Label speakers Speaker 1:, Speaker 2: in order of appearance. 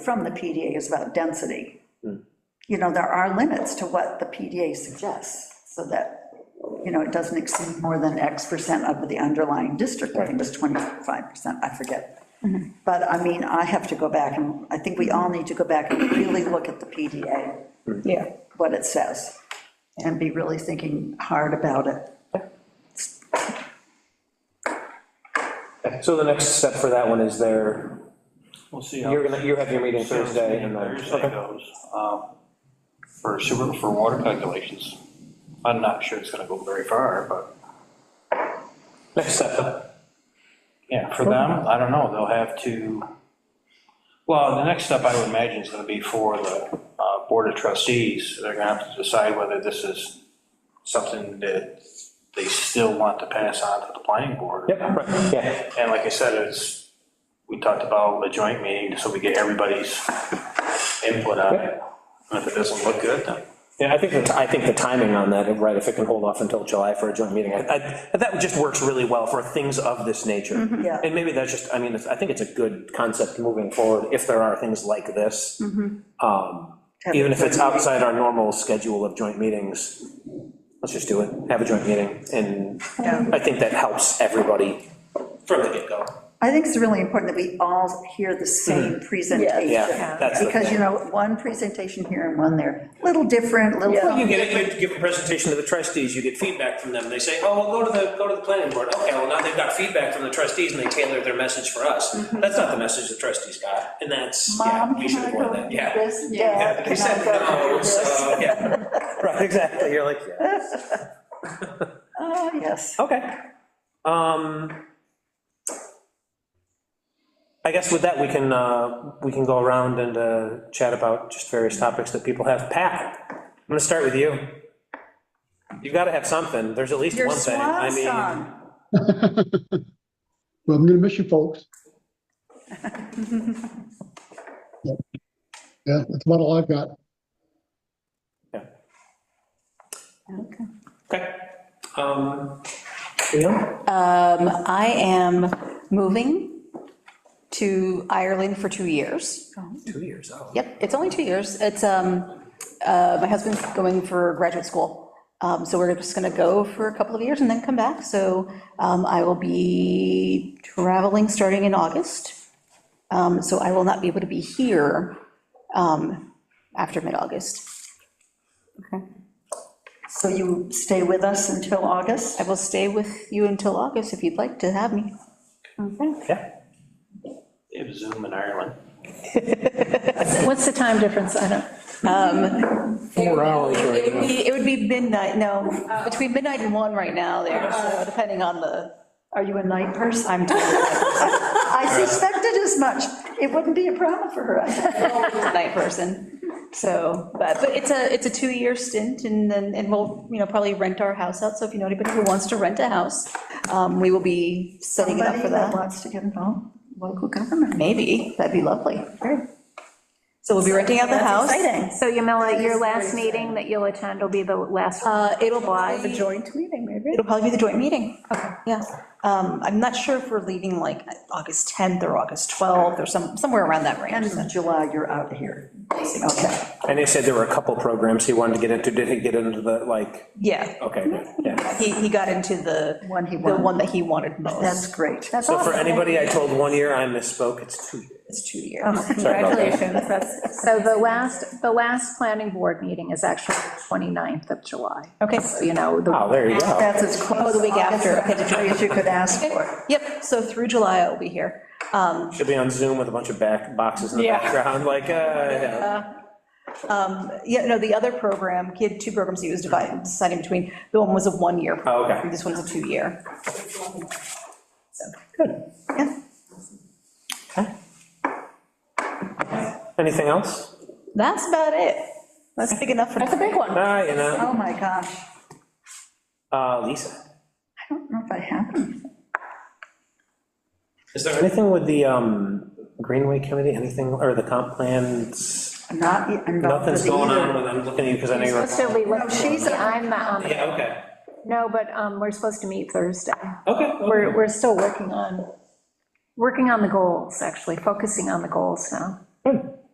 Speaker 1: from the PDA is about density.
Speaker 2: Hmm.
Speaker 1: You know, there are limits to what the PDA suggests, so that, you know, it doesn't exceed more than X percent of the underlying district, I think it was 25%, I forget.
Speaker 2: Mm-hmm.
Speaker 1: But, I mean, I have to go back, and I think we all need to go back and really look at the PDA,
Speaker 2: Hmm.
Speaker 3: Yeah,
Speaker 1: what it says, and be really thinking hard about it.
Speaker 2: So the next step for that one is there,
Speaker 4: We'll see how.
Speaker 2: you're gonna, you have your meeting
Speaker 4: see how
Speaker 2: Thursday and then,
Speaker 4: Thursday
Speaker 2: okay,
Speaker 4: goes, um, for super, for water calculations. I'm not sure it's gonna go very far, but,
Speaker 2: next step.
Speaker 4: yeah, for them, I don't know, they'll have to, well, the next step I would imagine is gonna be for the, uh, board of trustees. They're gonna have to decide whether this is something that they still want to pass on to the planning board.
Speaker 2: Yep, right, yeah,
Speaker 4: And like I said, it's, we talked about a joint meeting, so we get everybody's input on it. And if it doesn't look good, then.
Speaker 2: yeah, I think, the ti- I think the timing on that, right, if it can hold off until July for a joint meeting, I, I- that just works really well for things of this nature.
Speaker 1: Mm-hmm. Yeah.
Speaker 2: And maybe that's just, I mean, it's- I think it's a good concept moving forward, if there are things like this.
Speaker 1: Mm-hmm.
Speaker 2: Um,
Speaker 1: Have a
Speaker 2: Even if it's
Speaker 1: joint meeting.
Speaker 2: outside our normal schedule of joint meetings, let's just do it, have a joint meeting, and
Speaker 1: Yeah.
Speaker 2: I think that helps everybody from the get-go.
Speaker 1: I think it's really important that we all hear the same presentation.
Speaker 2: Hmm. Yeah, that's the
Speaker 1: Because, you
Speaker 2: thing.
Speaker 1: know, one presentation here and one there, little different, little.
Speaker 2: Well, you get, you give a presentation to the trustees, you get feedback from them, they say, oh, well, go to the, go to the planning board, okay, well, now they've got feedback from the trustees, and they tailor their message for us. That's not the message the trustees got, and that's, yeah,
Speaker 1: Mm-hmm. Mom,
Speaker 2: we
Speaker 1: can
Speaker 2: should
Speaker 1: I
Speaker 2: avoid
Speaker 1: go
Speaker 2: that,
Speaker 1: do
Speaker 2: yeah.
Speaker 1: this? Dad,
Speaker 2: They
Speaker 1: can
Speaker 2: said,
Speaker 1: I go
Speaker 2: no,
Speaker 1: do
Speaker 2: it's, uh,
Speaker 1: this?
Speaker 2: yeah. Right, exactly, you're like, yeah.
Speaker 1: Oh, yes.
Speaker 2: Okay. Um, I guess with that, we can, uh, we can go around and uh, chat about just various topics that people have. Pat, I'm gonna start with you. You've gotta have something, there's at least
Speaker 1: Your
Speaker 2: one thing. I
Speaker 1: swan
Speaker 2: mean,
Speaker 1: song.
Speaker 5: Well, I'm gonna miss you folks. Yep. Yeah, that's about all I've got.
Speaker 2: yeah. Okay. Um, Leon?
Speaker 6: I am moving to Ireland for two years.
Speaker 2: Two years, oh.
Speaker 6: Yep, it's only two years. It's, um, uh, my husband's going for graduate school. Um, so we're just gonna go for a couple of years and then come back. So, um, I will be traveling starting in August. Um, so I will not be able to be here, um, after mid-August. Okay.
Speaker 1: So you stay with us until August?
Speaker 6: I will stay with you until August if you'd like to have me. Okay.
Speaker 2: Yeah.
Speaker 4: They have Zoom in Ireland.
Speaker 6: What's the time difference? I don't. um,
Speaker 7: Four hours
Speaker 6: It would be, it would be midnight, no, between midnight and one right now there, so depending on the,
Speaker 1: Are you a night person?
Speaker 6: I'm, a
Speaker 2: uh,
Speaker 1: I suspected as much. It wouldn't be a problem for her.
Speaker 6: night person. So, but, but it's a, it's a two-year stint and then, and we'll, you know, probably rent our house out. So if you know anybody who wants to rent a house, um, we will be setting it up
Speaker 1: Somebody
Speaker 6: for
Speaker 1: that
Speaker 6: that.
Speaker 1: wants to get involved, local government.
Speaker 6: Maybe, that'd be lovely. So we'll be renting out the house.
Speaker 8: That's exciting. So Yamila, your last meeting that you'll attend will be the last.
Speaker 6: Uh, it'll probably be.
Speaker 8: joint meeting, maybe?
Speaker 6: It'll probably be the joint meeting. Okay. Yeah. Um, I'm not sure if we're leaving like August 10th or August 12th or some, somewhere around that
Speaker 1: End
Speaker 6: range.
Speaker 1: of July, you're out of here. Okay.
Speaker 2: And he said there were a couple programs he wanted to get into, did he get into the, like,
Speaker 6: Yeah.
Speaker 2: okay, good, yeah.
Speaker 6: He, he got into the.
Speaker 1: One he
Speaker 6: The
Speaker 1: wanted.
Speaker 6: one that he wanted most.
Speaker 1: That's great. That's
Speaker 2: So for anybody I told one year, I misspoke, it's two years.
Speaker 6: It's two years.
Speaker 2: Sorry about that.
Speaker 8: Congratulations, that's. So the last, the last planning board meeting is actually the 29th of July.
Speaker 6: Okay.
Speaker 8: So, You know, the.
Speaker 2: Oh, there you go.
Speaker 1: That's as
Speaker 6: Oh,
Speaker 1: close
Speaker 6: the week
Speaker 1: August
Speaker 6: after. Okay, the
Speaker 1: as you could ask for.
Speaker 6: Yep, so through July I'll be here. Um,
Speaker 2: Should be on Zoom with a bunch of back boxes in the background, like, uh, yeah.
Speaker 6: yeah, no, the other program, he had two programs he was dividing, deciding between. The one was a one-year.
Speaker 2: Oh, okay.
Speaker 6: program, This one's a two-year.
Speaker 2: Anything else?
Speaker 6: That's about it. That's big enough for.
Speaker 8: That's a big one.
Speaker 2: Ah, you know,
Speaker 1: Oh, my gosh.
Speaker 2: uh, Lisa,
Speaker 1: I don't know if I have any.
Speaker 2: is there anything with the, um, Greenway Committee, anything, or the comp plans?
Speaker 1: I'm Not e- involved
Speaker 2: Nothing's
Speaker 1: with
Speaker 2: going
Speaker 1: either.
Speaker 2: on with, I'm looking at you because I know you're.
Speaker 8: Supposed to be,
Speaker 1: No, she's-
Speaker 8: I'm not on, the-
Speaker 2: Yeah, okay,
Speaker 8: no, but um, we're supposed to meet Thursday.
Speaker 2: okay.
Speaker 8: We're, we're still working on, working on the goals, actually, focusing on the goals now.
Speaker 2: Good.